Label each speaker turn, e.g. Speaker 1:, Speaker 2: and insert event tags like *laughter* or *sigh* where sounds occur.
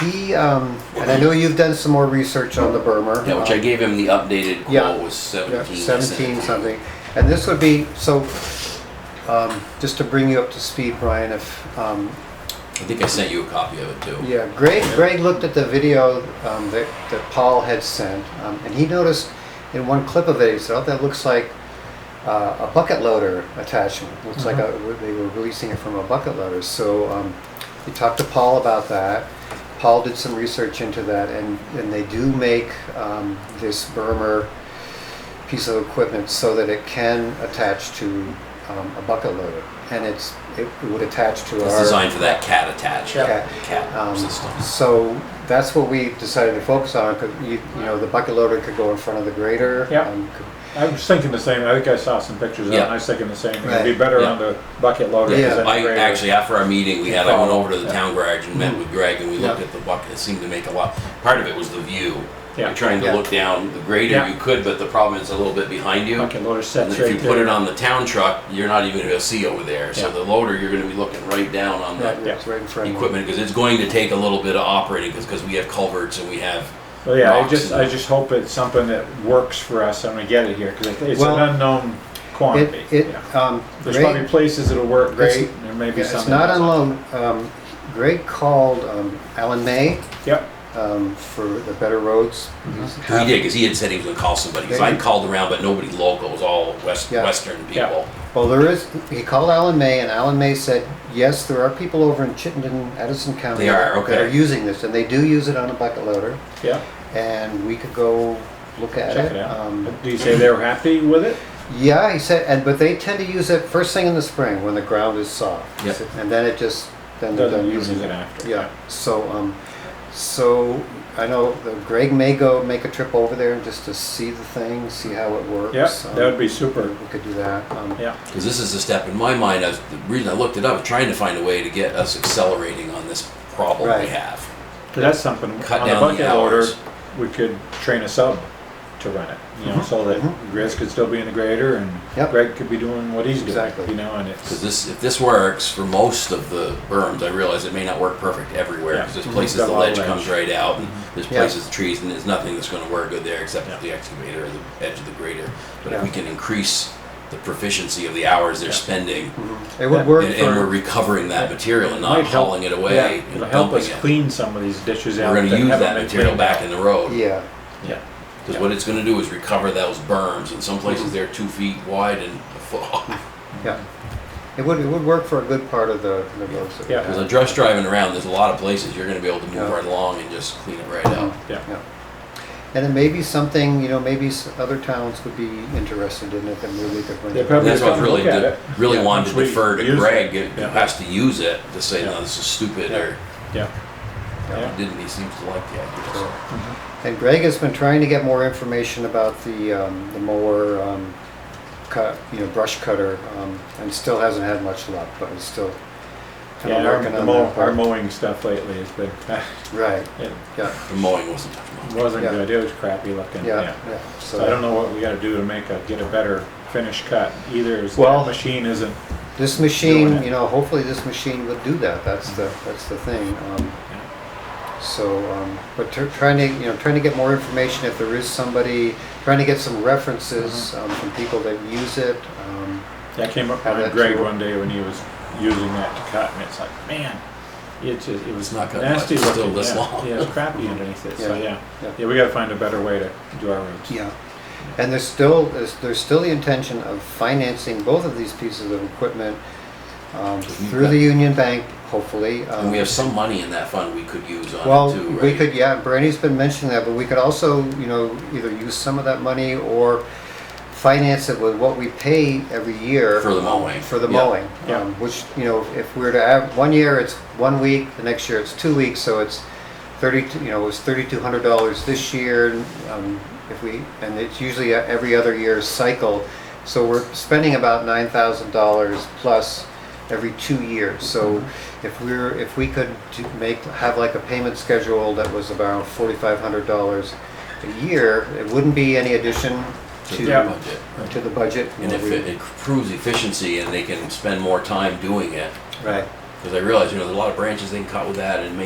Speaker 1: He, um, and I know you've done some more research on the Burmer.
Speaker 2: Yeah, which I
Speaker 1: um,
Speaker 2: gave him the updated
Speaker 1: Yeah.
Speaker 2: quote was
Speaker 1: yeah,
Speaker 2: seventeen.
Speaker 1: Seventeen something. And this would be, so, um, just to bring you up to speed, Brian, if, um,
Speaker 2: I think I sent you a copy of it too.
Speaker 1: Yeah, Greg, Greg looked at the video um, that, that Paul had sent, um, and he noticed in one clip of it, he said, oh, that looks like uh, a bucket loader attachment. Looks like a, they were releasing it from a bucket loader. So um, he talked to Paul about that. Paul did some research into that, and, and they do make um, this Burmer piece of equipment so that it can attach to um, a bucket loader. And it's, it would attach to
Speaker 2: It's
Speaker 1: our.
Speaker 2: designed for that cat attach,
Speaker 1: Yeah.
Speaker 2: cat
Speaker 1: Um,
Speaker 2: system.
Speaker 1: So that's what we decided to focus on, 'cause you, you know, the bucket loader could go in front of the grader.
Speaker 3: Yeah.
Speaker 1: um, could-
Speaker 3: I was thinking the same, I think I saw some pictures of it, and I was thinking the same, it'd be
Speaker 1: Right.
Speaker 3: better
Speaker 2: Yeah.
Speaker 3: on the bucket loader.
Speaker 1: Yeah.
Speaker 3: than the
Speaker 2: I
Speaker 3: grader.
Speaker 2: actually after our meeting we had, I went over to the
Speaker 3: Yeah.
Speaker 2: town garage and met with Greg and we
Speaker 1: Mm-hmm. Yeah.
Speaker 2: looked at the bucket. It seemed to make a lot. Part of it was the view.
Speaker 3: Yeah.
Speaker 2: You're trying to
Speaker 1: Yeah.
Speaker 2: look down the grader
Speaker 3: Yeah.
Speaker 2: you could, but the problem is a little bit behind you.
Speaker 3: Bucket loader
Speaker 2: And
Speaker 3: sets
Speaker 2: if
Speaker 3: right
Speaker 2: you put
Speaker 3: there.
Speaker 2: it on the town truck, you're not even gonna see over there. So
Speaker 3: Yeah.
Speaker 2: the loader, you're gonna be looking right down on the
Speaker 1: It's right in front of
Speaker 2: equipment because it's going to take a little bit of operating because we have culverts and we have.
Speaker 3: Well, yeah, I
Speaker 2: rocks
Speaker 3: just,
Speaker 2: and-
Speaker 3: I just hope it's something that works for us and we get it here, because it's
Speaker 1: Well,
Speaker 3: an unknown
Speaker 1: It,
Speaker 3: quantity. yeah.
Speaker 1: it, um,
Speaker 3: There's
Speaker 1: Greg-
Speaker 3: probably places that'll work great,
Speaker 1: It's-
Speaker 3: there may
Speaker 1: yeah,
Speaker 3: be some.
Speaker 1: it's
Speaker 3: that
Speaker 1: not
Speaker 3: doesn't.
Speaker 1: alone. Um, Greg called um, Alan May,
Speaker 3: Yep,
Speaker 1: um, for the Better Roads. Um, He's
Speaker 2: He did
Speaker 1: happy-
Speaker 2: because he had said he was gonna call somebody. Because
Speaker 1: They-
Speaker 2: I called around, but nobody local. It was all west
Speaker 1: Yeah.
Speaker 2: western
Speaker 3: Yeah.
Speaker 2: people.
Speaker 1: Well, there is, he called Alan May, and Alan May said, yes, there are people over in Chittenden, Edison County.
Speaker 2: They are,
Speaker 1: That are
Speaker 2: okay.
Speaker 1: using this, and they do use it on a bucket loader,
Speaker 3: yeah,
Speaker 1: and we could go look at it.
Speaker 3: check it out.
Speaker 1: Um,
Speaker 3: Do you say they were happy with it?
Speaker 1: Yeah, he said, and but they tend to use it first thing in the spring when the ground is soft. He
Speaker 2: Yep.
Speaker 1: said, And then it just then they're
Speaker 3: Doesn't
Speaker 1: done
Speaker 3: use
Speaker 1: using
Speaker 3: it
Speaker 1: it.
Speaker 3: after.
Speaker 1: Yeah. So um, so I know that Greg may go make a trip over there just to see the thing, see how it works.
Speaker 3: Yep,
Speaker 1: Um,
Speaker 3: that would be super,
Speaker 1: We could do that. Um,
Speaker 3: yeah.
Speaker 2: Because this is a step in my mind. I was, the reason I looked it up, trying to find a way to get us accelerating on this problem we
Speaker 1: Right.
Speaker 2: have.
Speaker 3: So that's something, on the
Speaker 2: Cut down the
Speaker 3: bucket loader,
Speaker 2: hours.
Speaker 3: we could train a sub to run it, you know, so that Grizz could still be in the grader and
Speaker 1: Mm-hmm. Yep.
Speaker 3: Greg could be doing what he's doing,
Speaker 1: Exactly.
Speaker 3: you know, and
Speaker 2: Because
Speaker 3: it's,
Speaker 2: this, if this works for most of the berms, I realize it may not work perfect everywhere.
Speaker 3: Yeah.
Speaker 2: Because
Speaker 3: Mhm.
Speaker 2: there's places
Speaker 3: Got a
Speaker 2: the
Speaker 3: lot of Mm-hmm.
Speaker 2: ledge comes right out, and there's
Speaker 1: Yeah.
Speaker 2: places the trees, and there's nothing that's going to work good there except
Speaker 3: Yeah.
Speaker 2: the excavator or the edge of the grader. But if
Speaker 1: Yeah.
Speaker 2: we can increase the proficiency of the hours they're
Speaker 3: Yeah.
Speaker 2: spending,
Speaker 1: mhm. It would work
Speaker 2: and,
Speaker 1: for
Speaker 2: and we're recovering that material and not
Speaker 3: Might help.
Speaker 2: hauling it
Speaker 3: yeah,
Speaker 2: away, and
Speaker 3: it'll help us
Speaker 2: dumping it.
Speaker 3: clean some of these ditches out.
Speaker 2: We're going to
Speaker 3: that
Speaker 2: use
Speaker 3: haven't
Speaker 2: that
Speaker 3: been
Speaker 2: material
Speaker 3: cleaned
Speaker 2: back
Speaker 3: out.
Speaker 2: in the road.
Speaker 1: yeah.
Speaker 3: Yeah,
Speaker 2: Because what it's going to do is recover those berms, and some places they're two feet wide and a foot
Speaker 3: *laughs*
Speaker 2: high.
Speaker 1: Yeah. It would it would work for a good part of the the roads. that we
Speaker 3: Yeah.
Speaker 2: Because
Speaker 1: have.
Speaker 2: I'm just driving around, there's a lot of places you're going to be able to move
Speaker 1: Yeah.
Speaker 2: right along and just clean it right out.
Speaker 3: yeah,
Speaker 1: Yeah. And it may be something, you know, maybe s- other towns would be interested in it, and maybe we could bring
Speaker 3: They
Speaker 1: it.
Speaker 3: probably
Speaker 2: And that's what I
Speaker 3: come
Speaker 2: really
Speaker 3: look at
Speaker 2: did,
Speaker 3: it.
Speaker 2: really
Speaker 3: Yeah,
Speaker 2: wanted
Speaker 3: once
Speaker 2: to
Speaker 3: we
Speaker 2: defer to
Speaker 3: use
Speaker 2: Greg,
Speaker 3: it.
Speaker 2: it- who
Speaker 3: Yeah.
Speaker 2: has to use it, to say,
Speaker 3: Yeah.
Speaker 2: no, this is stupid,
Speaker 3: Yeah.
Speaker 2: or
Speaker 3: yeah,
Speaker 2: he didn't, he seems to like the idea. so.
Speaker 3: Mm-hmm.
Speaker 1: And Greg has been trying to get more information about the, um, the mower, um, cut, you know, brush cutter, um, and still hasn't had much luck, but it's still kind of
Speaker 3: yeah, our-
Speaker 1: working
Speaker 3: the
Speaker 1: on
Speaker 3: mow-
Speaker 1: that
Speaker 3: our
Speaker 1: part.
Speaker 3: mowing stuff lately has been, *laughs*
Speaker 1: Right,
Speaker 3: it
Speaker 1: yeah,
Speaker 2: The mowing wasn't much fun.
Speaker 3: wasn't
Speaker 1: Yeah.
Speaker 3: good, it was crappy looking,
Speaker 1: yeah,
Speaker 3: yeah.
Speaker 1: yeah.
Speaker 3: So I don't
Speaker 1: So
Speaker 3: know what we gotta do to make a, get a better finish cut, either is
Speaker 1: Well-
Speaker 3: that machine isn't,
Speaker 1: this machine,
Speaker 3: Doing Mm-hmm. it.
Speaker 1: you know, hopefully this machine will do that, that's the, that's the thing. Um, So, um, but tr- trying to, you know, trying to get more information if there is somebody, trying to get some references
Speaker 3: Mm-hmm.
Speaker 1: um, from people that use it. um,
Speaker 3: That came up
Speaker 1: Have
Speaker 3: on
Speaker 1: that
Speaker 3: Greg
Speaker 1: tool.
Speaker 3: one day when he was using that to cut, and it's like, man, it just, it was
Speaker 2: It's not cutting much,
Speaker 3: nasty
Speaker 2: it's
Speaker 3: looking.
Speaker 2: still this
Speaker 3: yeah.
Speaker 2: long.
Speaker 3: Yeah, it was crappy underneath it, so
Speaker 1: Yeah,
Speaker 3: yeah.
Speaker 1: yeah.
Speaker 3: Yeah, we gotta find a better way to do our roads.
Speaker 1: Yeah, and there's still, there's there's still the intention of financing both of these pieces of equipment um, through the Union Bank, hopefully. um,
Speaker 2: And we have some money in that fund we could use on
Speaker 1: Well,
Speaker 2: it too, right?
Speaker 1: we could, yeah, Bernie's been mentioning that, but we could also, you know, either use some of that money or finance it with what we pay every year.
Speaker 2: For the mowing.
Speaker 1: For the
Speaker 2: Yeah.
Speaker 1: mowing,
Speaker 3: Yeah.
Speaker 1: um, which, you know, if we were to have, one year it's one week, the next year it's two weeks, so it's thirty, you know, it's thirty-two hundred dollars this year. um, If we, and it's usually a- every other year's cycle, so we're spending about nine thousand dollars plus every two years. So if we're, if we could do- make, have like a payment schedule that was about forty-five hundred dollars a year, it wouldn't be any addition
Speaker 2: To the
Speaker 3: Yeah.
Speaker 1: to,
Speaker 2: budget.
Speaker 1: to the budget.
Speaker 2: And if it improves efficiency and they can spend more time doing it,
Speaker 1: Right.
Speaker 2: because I realize, you know, there's a lot of branches they can cut with that and make